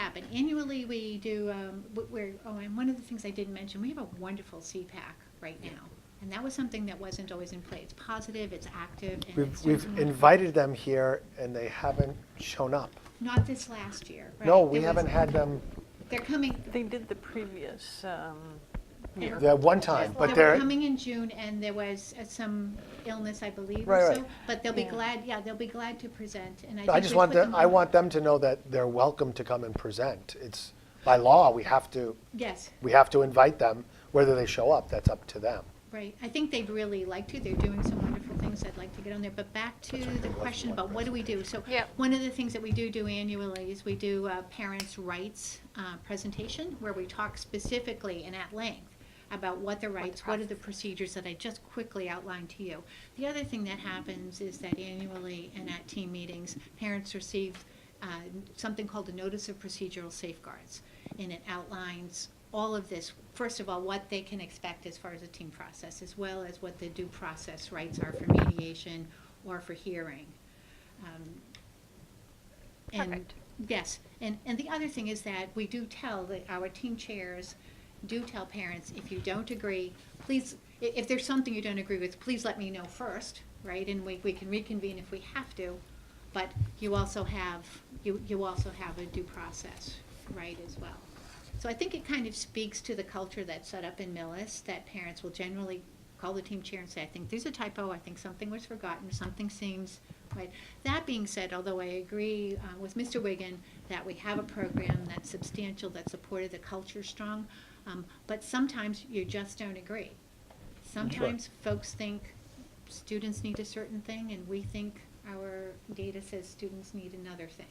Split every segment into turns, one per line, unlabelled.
happen. Annually, we do, um, w- we're, oh, and one of the things I didn't mention, we have a wonderful CPAC right now. And that was something that wasn't always in play. It's positive, it's active, and it's.
We've, we've invited them here and they haven't shown up.
Not this last year, right?
No, we
There was-
haven't had them,
They're coming,
They did the previous, um, year.
that one time, but
They were
they're,
coming in June, and there was uh, some illness, I believe,
Right,
or
right.
so. But they'll be
Yeah.
glad, yeah, they'll be glad to present, and I think
I just
we
want,
put
the-
them
I
on-
want them to know that they're welcome to come and present. It's, by law, we have to,
Yes,
we have to invite them, whether they show up, that's up to them.
right. I think they'd really like to. They're doing some wonderful things. I'd like to get on there. But back to the question about what do we do? So
Yep.
one of the things that we do do annually is we do a parents' rights uh, presentation, where we talk specifically and at length about what the rights, what are the procedures that I just quickly outlined to you. The other thing that happens is that annually and at team meetings, parents receive uh, something called a Notice of Procedural Safeguards, and it outlines all of this. First of all, what they can expect as far as a team process, as well as what the due process rights are for mediation or for hearing. Um, and-
Perfect.
Yes, and, and the other thing is that we do tell, the- our team chairs do tell parents, if you don't agree, please, i- if there's something you don't agree with, please let me know first, right? And we, we can reconvene if we have to, but you also have, you, you also have a due process, right, as well. So I think it kind of speaks to the culture that's set up in Millis, that parents will generally call the team chair and say, I think there's a typo, I think something was forgotten, something seems right. That being said, although I agree uh, with Mr. Wigan that we have a program that's substantial, that supported the culture strong, um, but sometimes you just don't agree. Sometimes folks think students need a certain thing, and we think our data says students need another thing.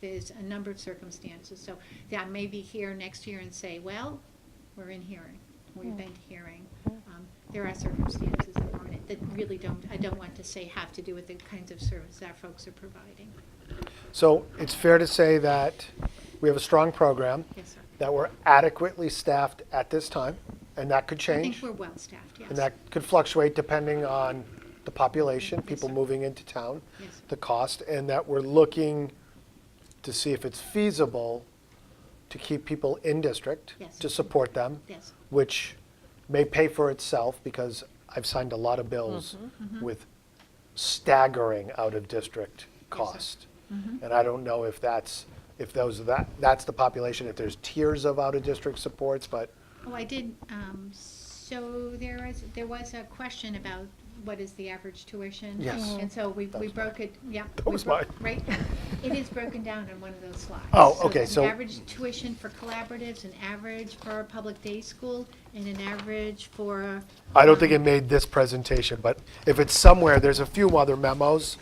There's a number of circumstances, so that I may be here next year and say, well, we're in hearing, we've been hearing. Um, There are circumstances that warrant it, that really don't, I don't want to say have to do with the kinds of service our folks are providing.
So it's fair to say that we have a strong program,
Yes, sir.
that we're adequately staffed at this time, and that could
I
change.
think we're well-staffed, yes.
And that could fluctuate depending on the population,
Yes,
people
sir.
moving into town,
Yes, sir.
the cost, and that we're looking to see if it's feasible to keep people in district,
Yes.
to support them,
Yes.
which may pay for itself, because I've signed a lot of bills with staggering out-of-district cost. And I don't know if that's, if those, that, that's the population, if there's tiers of out-of-district supports, but
Oh, I did, um, so there is, there was a question about what is the average tuition?
Yes. Mm-hmm.
And so we,
That
we
was mine.
broke it, yeah.
That
we
was
broke-
mine.
Right, it is broken down on one of those slides.
Oh, okay,
there's
so-
An average tuition for collaboratives, an average for a public day school, and an average for.
I don't think
um,
it made this presentation, but if it's somewhere, there's a few other memos,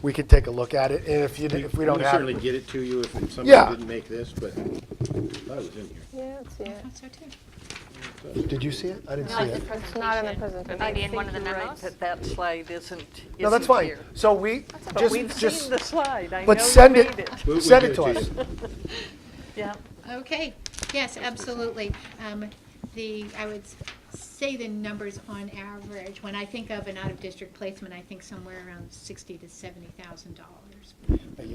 we could take a look at it, and if you, if we don't
can
have.
Certainly get it to you if somebody
Yeah.
didn't make this, but I thought it was in here.
Yeah, it's,
I
yeah.
thought so too.
Did you see it? I didn't see it.
It's not in the presentation.
Maybe in one of the memos? That that slide isn't, isn't
No, that's fine.
here.
So we,
But we've
just, just,
seen the slide, I know
but
you
send
made
it,
it.
We'll- we'll
send
get
it to us.
you.
Yeah.
Okay, yes, absolutely. Um, The, I would s- say the numbers on average, when I think of an out-of-district placement, I think somewhere around sixty to seventy thousand dollars a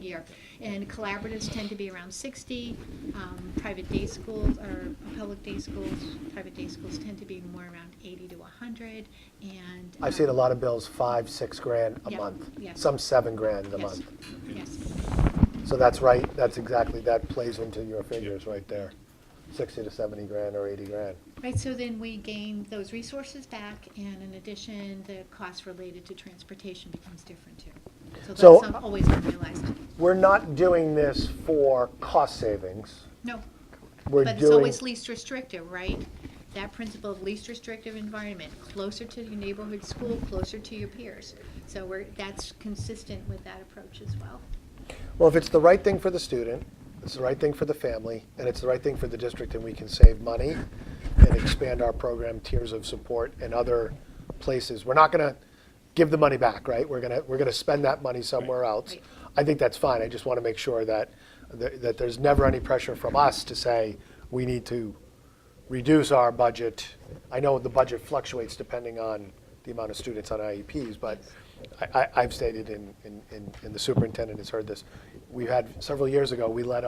year. And collaboratives tend to be around sixty, um, private day schools, or public day schools, private day schools tend to be more around eighty to hundred, and.
I've seen a
um,
lot of bills, five, six grand a
Yeah,
month,
yeah.
some seven grand a
yes,
month.
Yes,
So that's right, that's exactly, that plays into your figures right there, sixty to seventy grand or eighty grand.
right, so then we gain those resources back, and in addition, the cost related to transportation becomes different too. So
So-
that's some- always unrealized.
We're not doing this for cost savings,
No,
we're doing.
but it's always least restrictive, right? That principle of least restrictive environment, closer to your neighborhood school, closer to your peers. So we're, that's consistent with that approach as well.
Well, if it's the right thing for the student, it's the right thing for the family, and it's the right thing for the district, and we can save money and expand our program tiers of support and other places. We're not gonna give the money back, right? We're gonna, we're gonna spend that money somewhere else.
Right.
I think that's fine. I just wanna make sure that, that that there's never any pressure from us to say, we need to reduce our budget. I know the budget fluctuates depending on the amount of students on IEPs, but I, I, I've stated, and, and, and the superintendent has heard this, we had, several years ago, we let